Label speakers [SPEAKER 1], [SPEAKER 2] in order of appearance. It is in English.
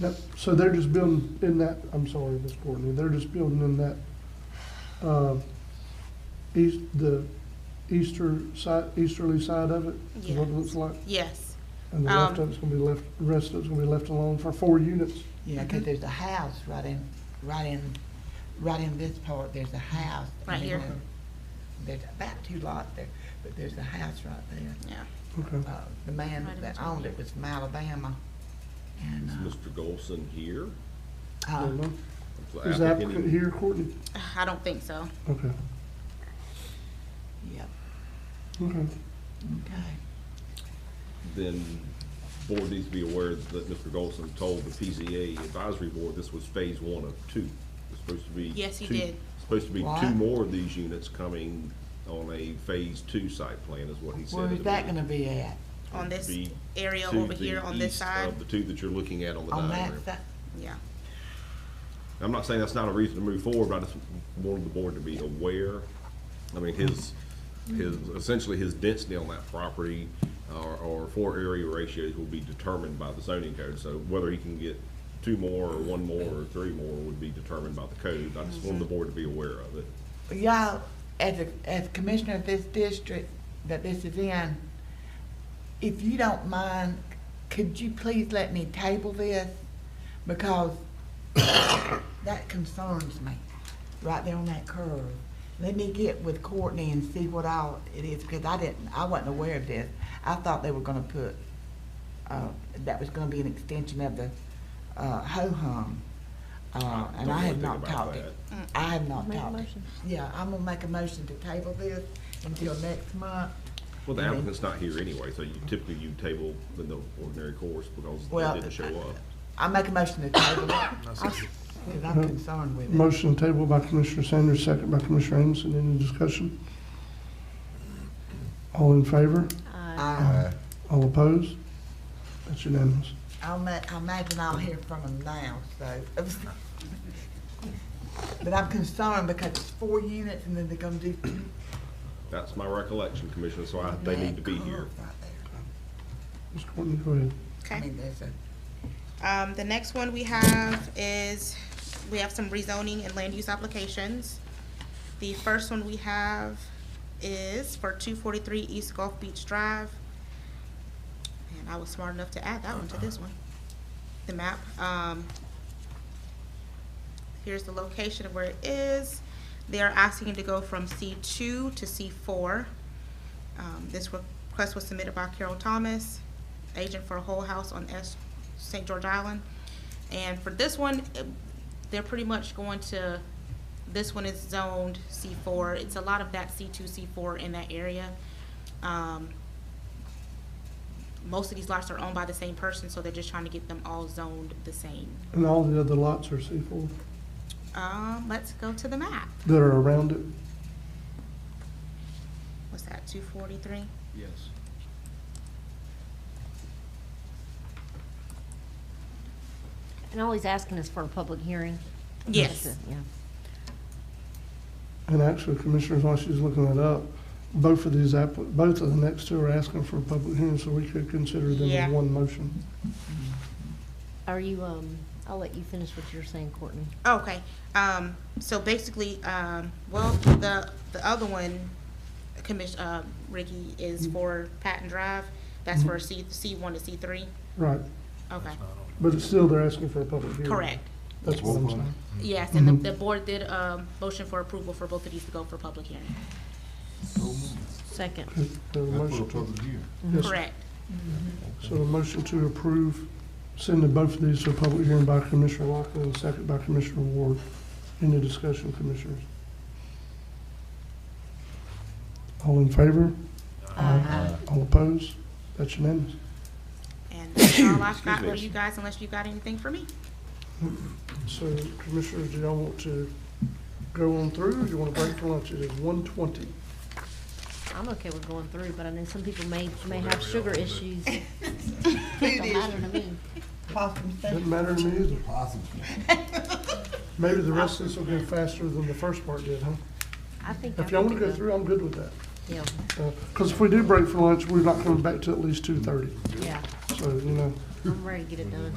[SPEAKER 1] Yep, so they're just building in that, I'm sorry, Ms. Courtney, they're just building in that, uh, east, the easter side, easterly side of it, is what it looks like?
[SPEAKER 2] Yes,
[SPEAKER 1] And the left
[SPEAKER 2] Um,
[SPEAKER 1] of it's gonna be left, rest of it's gonna be left alone for four units?
[SPEAKER 3] Yeah, because there's a house right in, right in, right in this part, there's a house. and
[SPEAKER 2] Right
[SPEAKER 3] they
[SPEAKER 2] here.
[SPEAKER 3] wanna- There's about two lots there, but there's a house right there.
[SPEAKER 2] yeah.
[SPEAKER 1] Okay,
[SPEAKER 3] Uh, The man
[SPEAKER 2] Right in
[SPEAKER 3] that
[SPEAKER 2] between.
[SPEAKER 3] owned it was from Alabama. And,
[SPEAKER 4] Is Mr. Golson here?
[SPEAKER 3] uh,
[SPEAKER 1] I
[SPEAKER 3] uh,
[SPEAKER 1] don't know.
[SPEAKER 4] the
[SPEAKER 1] Is the applicant here, Courtney?
[SPEAKER 2] I don't think so.
[SPEAKER 1] Okay,
[SPEAKER 3] yeah,
[SPEAKER 1] okay.
[SPEAKER 3] okay.
[SPEAKER 4] Then board needs to be aware that Mr. Golson told the PZA advisory board this was phase one of two. It's supposed to be.
[SPEAKER 2] Yes, he
[SPEAKER 4] two-
[SPEAKER 2] did.
[SPEAKER 4] Supposed to be two
[SPEAKER 3] What?
[SPEAKER 4] more of these units coming on a phase two site plan is what he said.
[SPEAKER 3] Where
[SPEAKER 4] at
[SPEAKER 3] is
[SPEAKER 4] the
[SPEAKER 3] that
[SPEAKER 4] meeting.
[SPEAKER 3] gonna be at?
[SPEAKER 2] On this
[SPEAKER 4] Be
[SPEAKER 2] area
[SPEAKER 4] To
[SPEAKER 2] over
[SPEAKER 4] the
[SPEAKER 2] here on this
[SPEAKER 4] east
[SPEAKER 2] side,
[SPEAKER 4] Of the two that you're looking at on the
[SPEAKER 3] On that
[SPEAKER 4] diagram.
[SPEAKER 3] side?
[SPEAKER 2] yeah.
[SPEAKER 4] I'm not saying that's not a reason to move forward, but I just wanted the board to be aware. I mean, his, his, essentially his density on that property or, or floor area ratios will be determined by the zoning code. So whether he can get two more or one more or three more would be determined by the code. I just wanted the board to be aware of it.
[SPEAKER 3] Y'all, as a, as commissioner of this district that this is in, if you don't mind, could you please let me table this? Because that concerns me, right there on that curve. Let me get with Courtney and see what all it is, because I didn't, I wasn't aware of this. I thought they were gonna put, uh, that was gonna be an extension of the, uh, ho-hum. Uh,
[SPEAKER 4] I
[SPEAKER 3] and
[SPEAKER 4] don't
[SPEAKER 3] I
[SPEAKER 4] know
[SPEAKER 3] have
[SPEAKER 4] anything
[SPEAKER 3] not
[SPEAKER 4] about
[SPEAKER 3] talked
[SPEAKER 4] that.
[SPEAKER 3] it. I have not
[SPEAKER 5] Make a
[SPEAKER 3] talked it.
[SPEAKER 5] motion.
[SPEAKER 3] Yeah, I'm gonna make a motion to table this until next month.
[SPEAKER 4] Well, the
[SPEAKER 3] Mhm.
[SPEAKER 4] applicant's not here anyway, so you typically you table in the ordinary course because
[SPEAKER 3] Well,
[SPEAKER 4] they didn't show up.
[SPEAKER 3] I make a motion to table it, because I'm concerned with it.
[SPEAKER 1] Motion table by Commissioner Sanders, second by Commissioner Amison. Any discussion? All in favor?
[SPEAKER 3] I,
[SPEAKER 1] All opposed? That's unanimous.
[SPEAKER 3] I'll ma- I imagine I'll hear from them now, so. But I'm concerned because it's four units and then they're gonna do two.
[SPEAKER 4] That's my recollection, Commissioner, so I, they need to be here.
[SPEAKER 3] Right there.
[SPEAKER 1] Ms. Courtney, go ahead.
[SPEAKER 3] I
[SPEAKER 2] Okay.
[SPEAKER 3] mean, there's a,
[SPEAKER 2] Um, the next one we have is, we have some rezoning and land use applications. The first one we have is for two forty-three East Gulf Beach Drive. And I was smart enough to add that one to this one, the map. Um, here's the location of where it is. They are asking to go from C two to C four. Um, this request was submitted by Carol Thomas, agent for Whole House on S, St. George Island. And for this one, eh, they're pretty much going to, this one is zoned C four. It's a lot of that C two, C four in that area. Um, most of these lots are owned by the same person, so they're just trying to get them all zoned the same.
[SPEAKER 1] And all the other lots are C4
[SPEAKER 2] Um, let's go to the map.
[SPEAKER 1] that are around it?
[SPEAKER 2] What's that, two forty-three?
[SPEAKER 6] Yes.
[SPEAKER 5] And all he's asking is for a public hearing?
[SPEAKER 2] Yes.
[SPEAKER 5] Yeah.
[SPEAKER 1] And actually, Commissioners, while she's looking that up, both of these app, both of the next two are asking for a public hearing, so we could consider them
[SPEAKER 2] Yeah.
[SPEAKER 1] in one motion.
[SPEAKER 5] Are you, um, I'll let you finish what you're saying, Courtney.
[SPEAKER 2] Okay, um, so basically, um, well, the, the other one, commission, uh, Ricky,
[SPEAKER 1] Mm-hmm.
[SPEAKER 2] is for Patton Drive. That's for C, C one to C three,
[SPEAKER 1] Right,
[SPEAKER 2] okay,
[SPEAKER 1] but it's still, they're asking for a public hearing.
[SPEAKER 2] correct.
[SPEAKER 1] That's what I'm saying.
[SPEAKER 4] Mm-hmm.
[SPEAKER 2] Yes, and
[SPEAKER 1] Mm-hmm.
[SPEAKER 2] the, the board did, um, motion for approval for both of these to go for public hearing,
[SPEAKER 5] Second.
[SPEAKER 1] The motion- yes, sir.
[SPEAKER 2] correct.
[SPEAKER 1] So a motion to approve, sending both of these to a public hearing by Commissioner Lockley and a second by Commissioner Ward. Any discussion, Commissioners? All in favor? All opposed? That's unanimous.
[SPEAKER 2] And that's all I've got
[SPEAKER 4] Excuse
[SPEAKER 2] for
[SPEAKER 4] me.
[SPEAKER 2] you guys, unless you got anything for me.
[SPEAKER 1] So Commissioners, do y'all want to go on through, or do you want to break for lunch? It is one twenty.
[SPEAKER 5] I'm okay with going through, but I know some people may, may have sugar issues.
[SPEAKER 3] Food
[SPEAKER 5] Don't matter to me.
[SPEAKER 3] possum soup.
[SPEAKER 1] Doesn't matter to me either. Maybe the rest of this will go faster than the first part did, huh?
[SPEAKER 5] I think. I
[SPEAKER 1] If y'all want to go
[SPEAKER 5] can do that.
[SPEAKER 1] through, I'm good with that.
[SPEAKER 5] Yeah,
[SPEAKER 1] Because if we do break for lunch, we're not coming back to at least two thirty.
[SPEAKER 5] yeah,
[SPEAKER 1] So, you know,
[SPEAKER 5] I'm ready to get it done.